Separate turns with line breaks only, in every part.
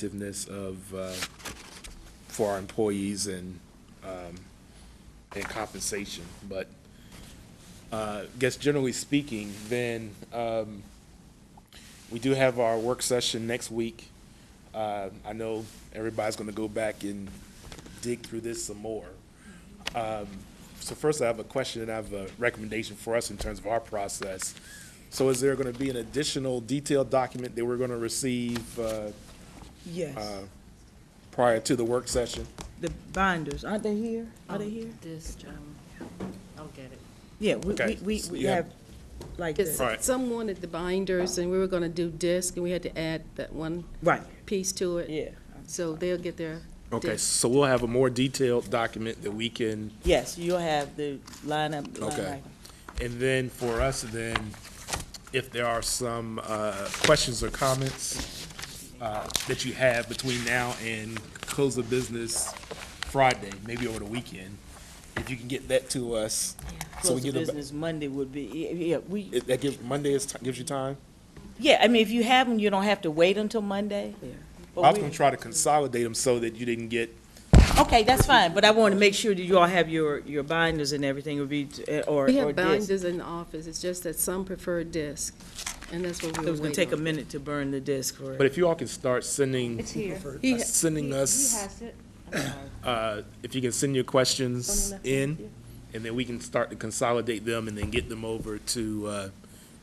competitiveness of, uh, for our employees and, um, and compensation, but, uh, guess generally speaking, then, um, we do have our work session next week. Uh, I know everybody's gonna go back and dig through this some more. Um, so first I have a question and I have a recommendation for us in terms of our process. So is there gonna be an additional detailed document that we're gonna receive, uh,
Yes,
prior to the work session?
the binders, aren't they here? Are they
Um,
here?
This, um, I'll get it.
Yeah, we,
okay,
we, we-
so
we
you have-
have, like,
Because
this.
Right.
some wanted the binders, and we were gonna do disc, and we had to add that one
right,
piece to it.
yeah.
So they'll get their
Okay,
disc.
so we'll have a more detailed document that we can,
Yes, you'll have the lineup, line
Okay.
item.
and then for us, then, if there are some, uh, questions or comments, uh, that you have between now and close of business Friday, maybe over the weekend, if you can get that to us. so we
Close
get
of
a-
business Monday would be, yeah, yeah, we,
It- That gives, Monday is, gives you time?
yeah, I mean, if you have them, you don't have to wait until Monday. But
I was
we-
gonna try to consolidate them so that you didn't get,
Okay, that's fine, but I want to make sure that you all have your, your binders and everything would be, uh, or,
We
or
have
this.
binders in the office, it's just that some prefer disc, and that's what we
It
were
was gonna take
waiting
a
on.
minute to burn the disc for
but if you all can start sending,
It's here.
He-
sending us.
He has it. I'm sorry.
uh, if you can send your questions in, and then we can start to consolidate them and then get them over to uh,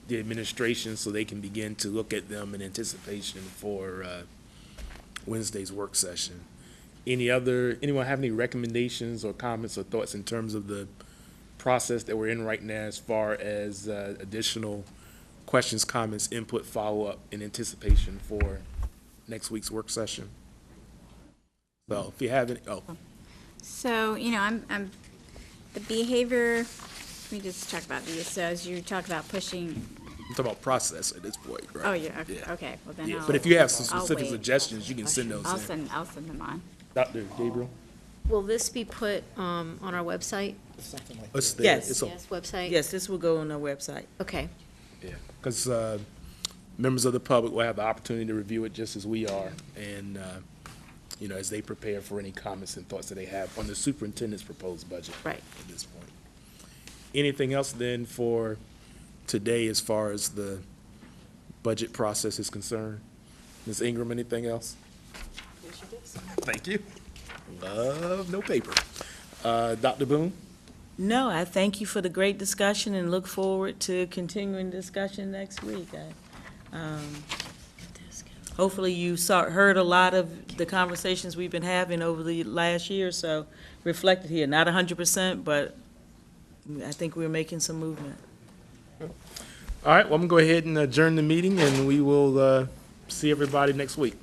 the administration so they can begin to look at them in anticipation for uh, Wednesday's work session. Any other, anyone have any recommendations or comments or thoughts in terms of the process that we're in right now as far as uh, additional questions, comments, input, follow-up in anticipation for next week's work session? So if you have any, oh,
So, you know, I'm, I'm, the behavior, let me just talk about these. So as you talk about pushing,
I'm talking about process at this point, right?
oh, yeah, okay,
Yeah.
okay, well then
Yeah,
I'll.
but if you have some
I'll
specific
wait.
suggestions, you can send those
I'll
in.
send, I'll send them on.
Dr. Gabriel?
Will this be put um, on our website?
It's there.
Yes.
It's on-
Yes, website?
Yes, this will go on our website.
Okay,
Yeah, because, uh, members of the public will have the opportunity to review it just as we are, and, uh, you know, as they prepare for any comments and thoughts that they have on the superintendent's proposed budget.
Right.
At this point. Anything else then for today as far as the budget process is concerned? Ms. Ingram, anything else? Thank you. Love, no paper. Uh, Dr. Boone?
No, I thank you for the great discussion and look forward to continuing discussion next week. I, um, Hopefully you saw, heard a lot of the conversations we've been having over the last year, or so reflected here, not hundred percent, but I think we're making some movement.
All right, well, I'm gonna go ahead and adjourn the meeting, and we will, uh, see everybody next week.